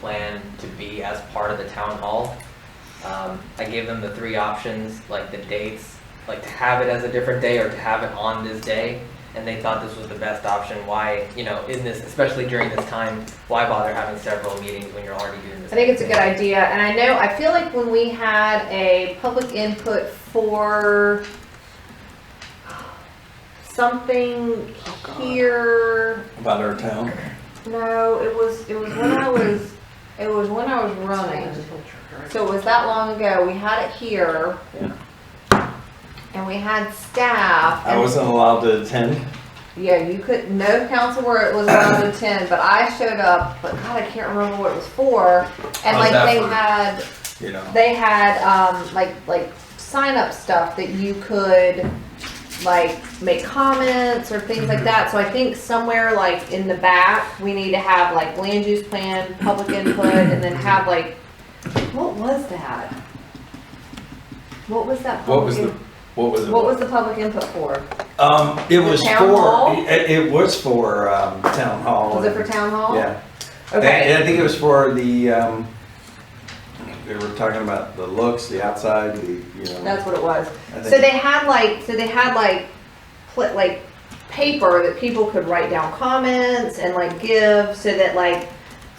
plan to be as part of the town hall. Um, I gave them the three options, like the dates, like to have it as a different day or to have it on this day. And they thought this was the best option. Why, you know, in this, especially during this time, why bother having several meetings when you're already doing this? I think it's a good idea, and I know, I feel like when we had a public input for something here, about our town. no, it was, it was when I was, it was when I was running. So it was that long ago, we had it here. Yeah. And we had staff. I and- wasn't allowed to attend. Yeah, you could, no council where it was allowed to attend, but I showed up, but God, I can't remember what it was for. And Oh, like that they for- had, You know, they had um, like like sign up stuff that you could like make comments or things Mm-hmm. like that. So I think somewhere like in the back we need to have like land use plan, public input, and Mm-hmm. then have like what was that? What was that? what public was the what was in- it? what was the public input for? um, it was town for hall? it, it was for um, town hall. Was it for and- town hall? Yeah, Okay. And I think it was for the. Um, they were talking about the looks, the outside, the you know. That's what it was. I So think- they had like, so they had like, pl- like paper that people could write down comments and like give so that like,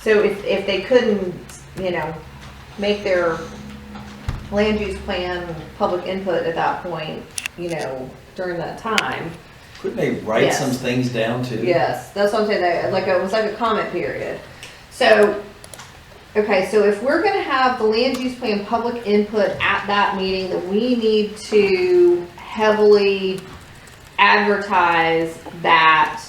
so if, if they couldn't, you know, make their land use plan, public input at that point, you know, during that time. couldn't they write Yes. some things down too? Yes, that's what I'm saying, they- like, it was like a comment period. So, okay, so if we're gonna have the land use plan public input at that meeting, then we need to heavily advertise that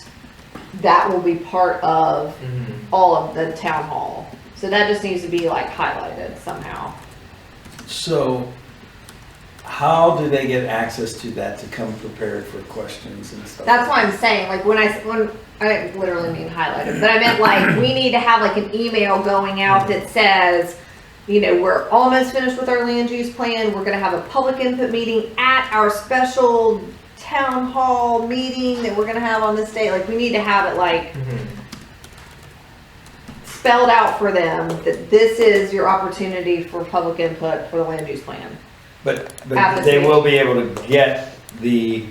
that will be part of Mhm. all of the town hall. So that just needs to be like highlighted somehow. So, how do they get access to that to come prepared for questions and stuff? That's what I'm saying. Like when I s- when I didn't literally mean highlighted, but I meant like we need to have like an email going out that says, you know, we're almost finished with our land use plan. We're going to have a public input meeting at our special town hall meeting that we're going to have on this day. Like we need to have it like Mhm. spelled out for them that this is your opportunity for public input for the land use plan. But, but Have they the- will be able to get the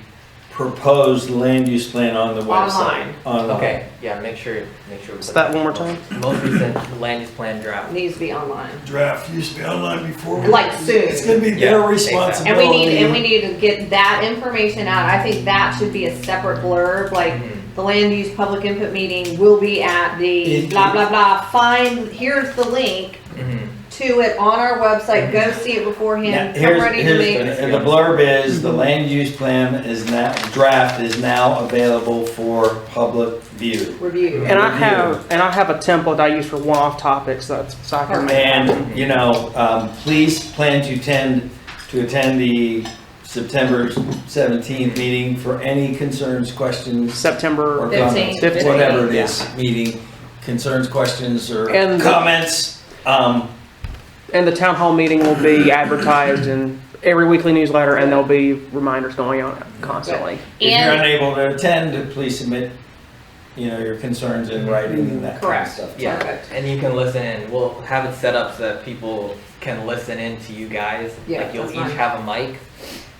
proposed land use plan on the website. Online. Online. Okay, yeah, make sure, make sure. we Say put that one more time. Most recent land use plan draft. It needs to be online, draft used to be online before. like soon. It's gonna be Yeah, their exactly. And responsibility. we need, and we need to get that information out. I think that should be a separate blurb, like Mhm. the land use public input meeting will be at the It- blah, blah, blah. Find, here's the link Mhm. to it on our website. Go see it Now, beforehand. I'm here's, ready to here's- make. and the blurb is, the land use plan is now, draft is now available for public view. Review. And I have, and I have a template I use for one-off topics, that's, so I can make. And, you know, um, please plan to attend, to attend the September seventeenth meeting for any concerns, questions, or September, comments, 15. whatever it is, meeting, concerns, questions, or And the- comments. Um, and the town hall meeting will be advertised in every weekly newsletter, and there'll be reminders going out constantly. if you're And- unable to attend, please submit, you know, your concerns in writing and that kind of Correct. stuff. Yeah, Perfect. and you can listen in. We'll have it set up so that people can listen in to you guys. Yeah, Like you'll that's each fine. have a mic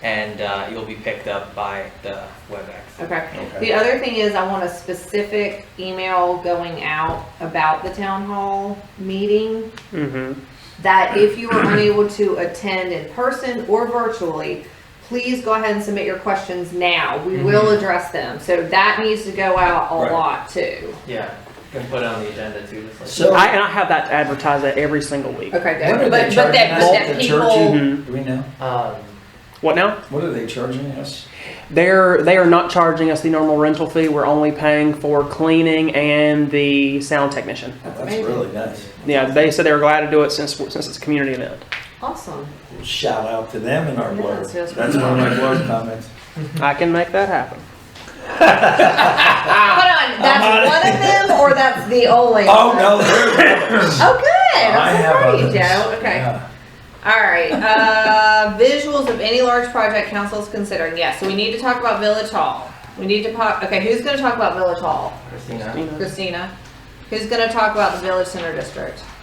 and uh, you'll be picked up by the WebEx. Okay. Okay. The other thing is I want a specific email going out about the town hall meeting. hmm that if you are unable to attend in person or virtually, please go ahead and submit your questions now. We will address them. So that needs to go out a Mm-hmm. Right. lot too. Yeah, you can put it on the agenda too. just like- So, I, and I have that advertised at every single week. Okay, What are good. they But, but charging that, us? but that The church? people, hmm do we know, Um, What now? what are they charging us? They're, they are not charging us the normal rental fee, we're only paying for cleaning and the sound technician. That's amazing. really nice. Yeah, they said they were glad to do it since, since it's a community event. awesome. Well, Shout out to them in our Yeah, blurb. it's just- That's one of my blurb comments. I can make that happen. Hold on, I'm on it. that's one of them or that's the only? Oh, no, they're others. Oh, good. I I'm so have proud of you, others. Joe. Okay. Yeah. All right, uh, visuals of any large project council is considering. Yes, so we need to talk about Village Hall. We need to, po- okay, who's gonna talk about Village Hall? Christina? You know? Christina, who's gonna talk about the Village Center District?